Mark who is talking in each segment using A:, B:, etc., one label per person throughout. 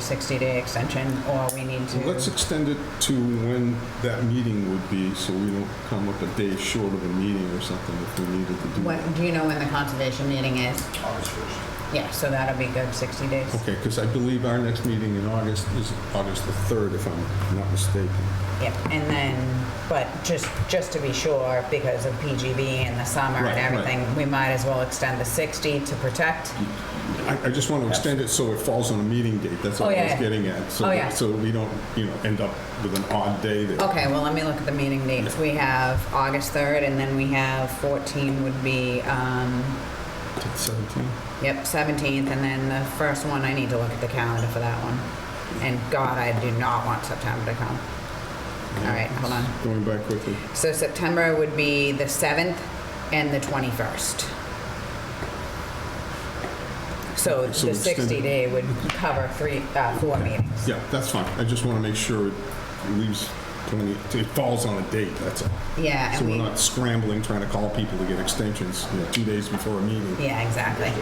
A: 60-day extension, or we need to...
B: Let's extend it to when that meeting would be, so we don't come up a day short of a meeting or something if we needed to do
A: When-
B: that.
A: Do you know when the conservation meeting is? Yeah, so that'll be good, 60 days.
B: Okay, because I believe our next meeting in August is August the 3rd, if I'm not mistaken.
A: Yep, and then, but just, just to be sure, because of PGB and the summer
B: Right,
A: and
B: right.
A: everything, we might as well extend the 60 to protect.
B: I, I just want to extend it so it falls on a meeting date, that's all
A: Oh,
B: I
A: yeah,
B: was
A: yeah.
B: getting at. so
A: Oh,
B: that-
A: yeah. Oh.
B: So we don't, you know, end up with an odd day there.
A: Okay, well, let me look at the meeting dates. We have August 3rd, and then we have 14 would be, um,
B: 17?
A: yep, 17th, and then the first one, I need to look at the calendar for that one. And God, I do not want September to come. All right, hold on.
B: Going back quickly.
A: So September would be the 7th and the 21st. So
B: so
A: the
B: extend it.
A: 60 day would cover three, uh, four meetings.
B: Yeah, that's fine, I just want to make sure it leaves, plenty- it falls on a date, that's all.
A: Yeah,
B: So
A: and
B: we're
A: we,
B: not scrambling, trying to call people to get extensions, you know, two days before a meeting.
A: yeah, exactly.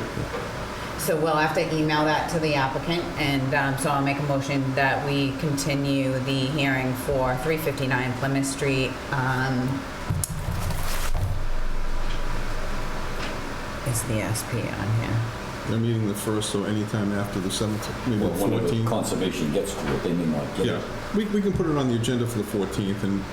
A: So we'll have to email that to the applicant, and um, so I'll make a motion that we continue the hearing for 359 Plymouth Street. um, Is the SP on here?
B: They're meeting the first, so anytime after the 7th, maybe the
C: Well, whenever
B: 14th.
C: conservation gets to it, they may not get
B: Yeah,
C: it.
B: we, we can put it on the agenda for the 14th and,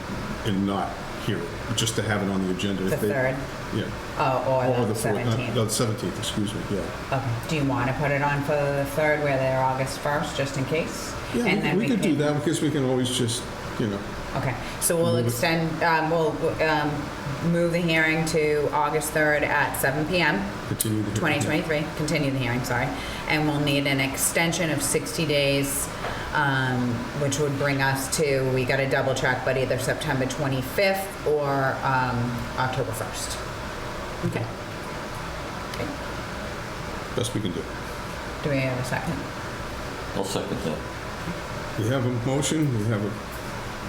B: and not hear it, just to have it on the agenda. if
A: The
B: they-
A: 3rd?
B: Yeah.
A: Oh,
B: Or
A: or the
B: the 4th,
A: 17th?
B: not- no, the 17th, excuse me, yeah.
A: Okay, do you want to put it on for the third where they're August 1st, just in case? And
B: Yeah,
A: then
B: we- we could do
A: can-
B: that, because we can always just, you know,
A: Okay, so we'll
B: Move it.
A: extend, um, we'll, um, move the hearing to August 3rd at 7 PM,
B: continue to.
A: 2023, continue the hearing, sorry. And we'll need an extension of 60 days, um, which would bring us to, we got to double check, but either September 25th or, um, October 1st. Okay,
B: Best we can do.
A: do we have a second?
C: I'll second that.
B: We have a motion, we have a,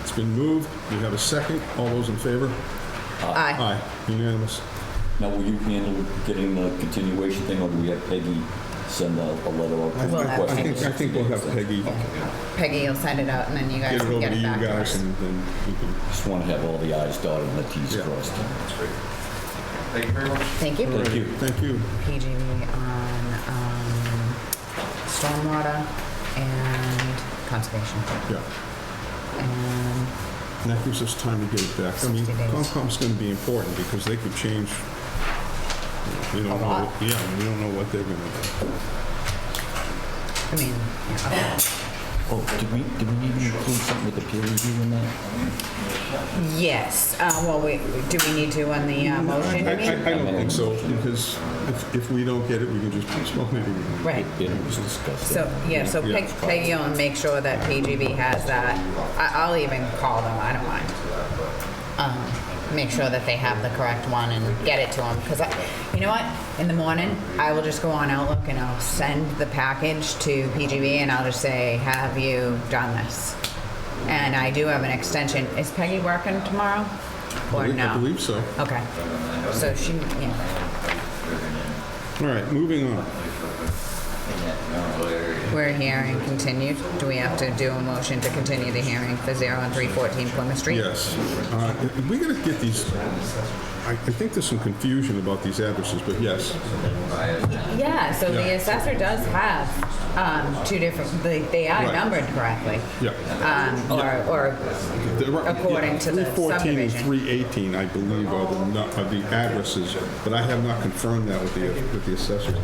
B: it's been moved, we have a second, all those in favor?
A: Aye.
B: Aye, unanimous.
C: Now, will you handle getting the continuation thing, or do we have Peggy send a a letter out?
B: I
C: to
A: We'll
B: think-
A: have
B: I
C: request
B: think, I
C: it?
B: think we'll have Peggy
A: Peggy will send it out and then you guys
B: get it
A: can
B: over
A: get
B: to
A: it
B: you
A: back to
B: guys
A: us.
B: and then you can,
C: Just want to have all the i's dotted and the t's
B: Yeah.
C: crossed.
D: Thank you very much.
A: Thank you.
C: Thank you.
B: thank you.
A: PGV on um, stormwater and conservation.
B: Yeah,
A: And
B: and that gives us time to get it back. I mean,
A: 60 days.
B: Concom's going to be important because they could change, we don't know,
A: A lot.
B: yeah, we don't know what they're going to do.
A: I mean, yeah, okay.
C: Oh, did we, did we need to include something with the peer review in that?
A: yes, uh, well, we, do we need to on the uh, motion,
B: Mm, I,
A: you mean?
B: I- I don't think so, because if, if we don't get it, we can just postpone it again.
A: Right.
C: It was discussed.
A: So, yeah, so
B: Yeah.
A: Peg- Peggy will make sure that PGV has that. I- I'll even call them, I don't mind. Um, Make sure that they have the correct one and get it to them, because I, you know what? In the morning, I will just go on Outlook and I'll send the package to PGV and I'll just say, have you done this? And I do have an extension. Is Peggy working tomorrow? Or
B: I
A: no?
B: believe so.
A: Okay. So she, yeah,
B: All right, moving on.
A: we're here and continued. Do we have to do a motion to continue the hearing for 01314 Plymouth Street?
B: Yes. Uh, We got to get these, I, I think there's some confusion about these addresses, but yes.
A: Yeah, so
B: Yeah.
A: the assessor does have um, two different, they, they are
B: Right. Oh.
A: numbered correctly.
B: Yeah.
A: Um, or, or,
B: They're right, yeah.
A: According to the
B: 314 and
A: subdivision.
B: 318, I believe, are the, nu- are the addresses, but I have not confirmed that with the, with the assessor.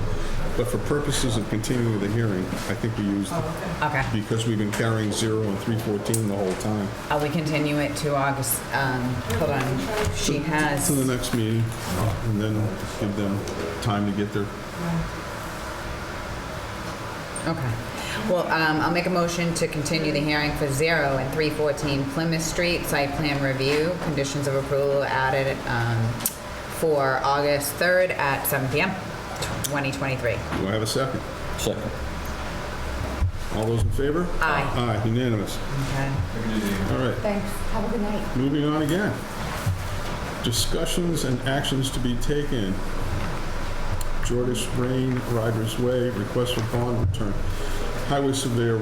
B: But for purposes of continuing the hearing, I think we used,
A: Oh, okay.
B: because we've been carrying 0 and 314 the whole time,
A: Uh, we continue it to August, um, hold on, she has,
B: to the next meeting, and then give them time to get their,
A: okay. Well, um, I'll make a motion to continue the hearing for zero and three fourteen Plymouth Street, site plan review, conditions of approval added, um, for August third at seven PM, twenty twenty-three.
B: do I have a second?
C: Second.
B: All those in favor?
A: Aye.
B: Aye, unanimous.
A: Okay.
B: All right.
A: Thanks, have a good night.
B: Moving on again. Discussions and actions to be taken. Jordan Rain, Riders Way, request for bond return. Highway Surveyor